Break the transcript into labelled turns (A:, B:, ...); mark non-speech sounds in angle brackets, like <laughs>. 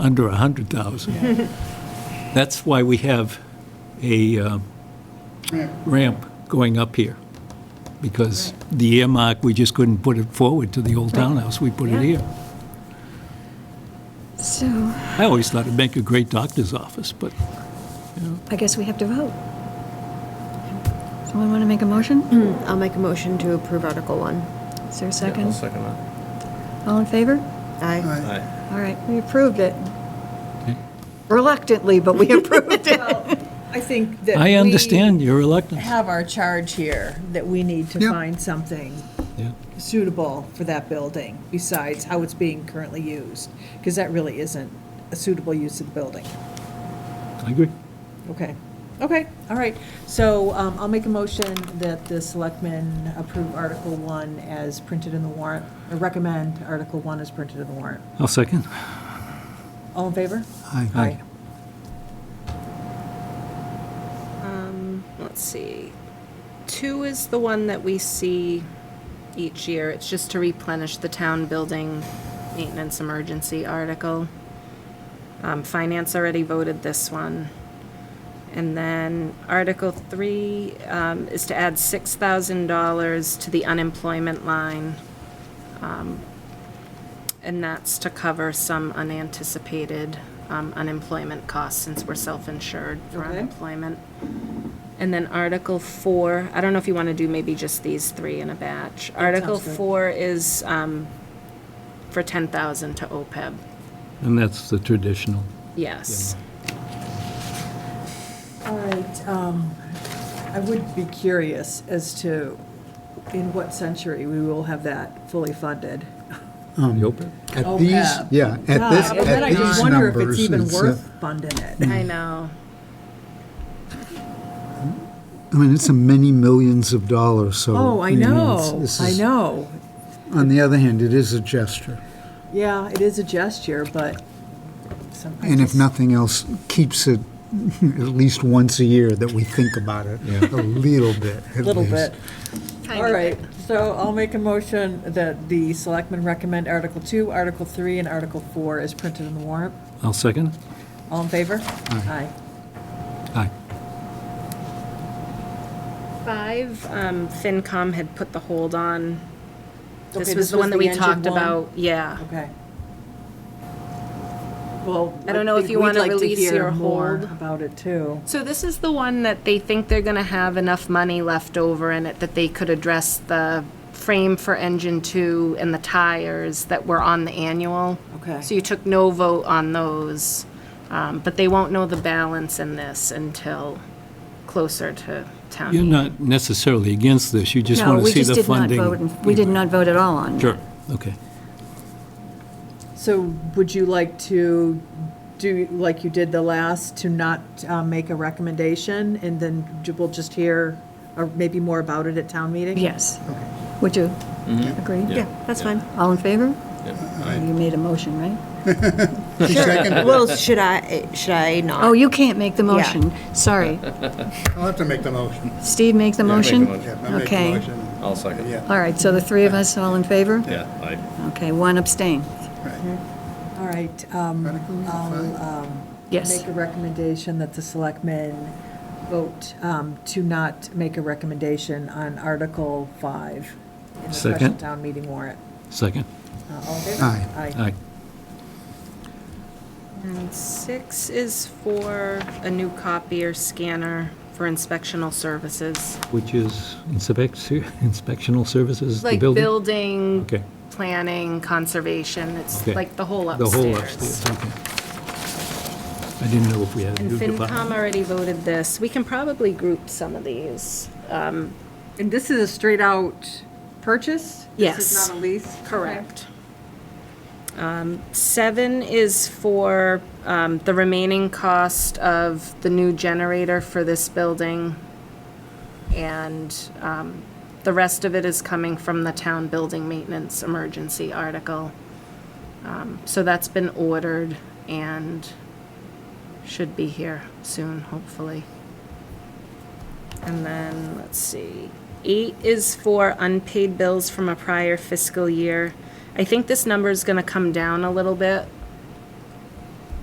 A: under 100,000. That's why we have a uh, ramp going up here, because the earmark, we just couldn't put it forward to the old townhouse, we put it here.
B: So
A: I always thought it'd make a great doctor's office, but
B: I guess we have to vote. Someone want to make a motion?
C: Mm-hmm.
D: I'll make a motion to approve Article 1.
B: Is there a
E: Yeah, I'll
B: second?
E: second that.
B: All in favor?
D: Aye.
E: Aye.
B: All right, we approved it. Reluctantly, but
C: <laughs>
B: we approved it.
C: I think that
A: I
C: we
A: understand your reluctance.
C: have our charge here, that we need to
A: Yeah.
C: find something
A: Yeah.
C: suitable for that building besides how it's being currently used, because that really isn't a suitable use of the building.
A: I agree.
C: Okay, okay, all right. So um, I'll make a motion that the selectmen approve Article 1 as printed in the warrant, or recommend Article 1 as printed in the warrant.
A: I'll second.
C: All in favor?
A: Aye.
D: Um, Let's see. Two is the one that we see each year. It's just to replenish the town building maintenance emergency article. Um, Finance already voted this one. And then Article 3 um, is to add $6,000 to the unemployment line. Um, And that's to cover some unanticipated um, unemployment costs, since we're self-insured for
C: Okay.
D: unemployment. And then Article 4, I don't know if you want to do maybe just these three in a batch. Article
C: sounds good.
D: 4 is um, for 10,000 to OPEB,
A: And that's the traditional.
D: yes.
C: All right, um, I would be curious as to in what century we will have that fully funded.
A: Um,
F: At these,
C: OPEB.
F: yeah,
C: Oh, Yeah,
F: at this,
C: but then I
F: at
C: just
F: these
C: wonder if it's
F: numbers,
C: even
F: it's, uh,
C: worth funding it.
D: I know,
F: I mean, it's a many millions of dollars, so.
C: Oh, I
F: mean, it's-
C: know,
F: this
C: I
F: is-
C: know.
F: On the other hand, it is a gesture,
C: Yeah, it is a gesture, but sometimes.
F: and if nothing else, keeps it <laughs> at least once a year that we think about it, a little bit, at
C: Little
F: least.
C: bit. All right, so I'll make a motion that the selectmen recommend Article 2, Article 3, and Article 4 is printed in the warrant.
A: I'll second.
C: All in favor? Aye.
A: Aye.
D: five, um, FinCom had put the hold on.
C: Okay,
D: This was the one that we
C: engine
D: talked
C: one?
D: about, yeah.
C: Okay. Well,
D: I don't know if
C: think
D: you
C: we'd
D: wanna
C: like to
D: release
C: hear
D: your
C: more
D: hold.
C: About it too.
D: So this is the one that they think they're gonna have enough money left over in it that they could address the frame for engine two and the tires that were on the annual.
C: Okay.
D: So you took no vote on those, um, but they won't know the balance in this until closer to town.
A: You're
D: meeting.
A: not necessarily against this, you just
B: No,
A: want to
B: we
A: see
B: just
A: the
B: did not
A: funding.
B: vote. and- We did not vote at all on it.
A: Sure, okay.
C: So would you like to do, like you did the last, to not uh, make a recommendation and then ju- we'll just hear or maybe more about it at town meeting?
B: Yes. Would you agree?
E: Yeah.
B: that's fine. All in favor? Oh,
E: Yeah.
B: You made a motion, right?
G: Well, should I, should I not?
B: Oh, you can't make the motion. Sorry.
H: I'll have to make the motion.
B: Steve, make the motion?
H: Yeah, I'll make the
B: Okay.
H: motion.
E: I'll second.
H: Yeah.
B: All right, so the three of us, all in favor?
E: Yeah, aye.
B: Okay, one abstain.
C: All right, um, I'll um,
B: Yes.
C: make a recommendation that the selectmen vote um, to not make a recommendation on Article 5 in the special
A: Second.
C: town meeting warrant.
A: Second.
C: Uh, All in favor?
F: Aye.
A: Aye.
D: And six is for a new copier scanner for inspectional services.
A: Which is inspect, <laughs> inspectional services, the
D: Like
A: building?
D: building,
A: Okay.
D: planning, conservation, it's
A: Okay.
D: like the whole
A: The
D: upstairs.
A: whole upstairs, okay. I didn't know if we had a
D: And
A: new
D: FinCom
A: department.
D: already voted this. We can probably group some of these. um,
C: And this is a straight-out purchase? This
D: Yes.
C: is not a lease?
D: Correct. Um, Seven is for um, the remaining cost of the new generator for this building. And um, the rest of it is coming from the town building maintenance emergency article. Um, So that's been ordered and should be here soon, hopefully. And then, let's see, eight is for unpaid bills from a prior fiscal year. I think this number is gonna come down a little bit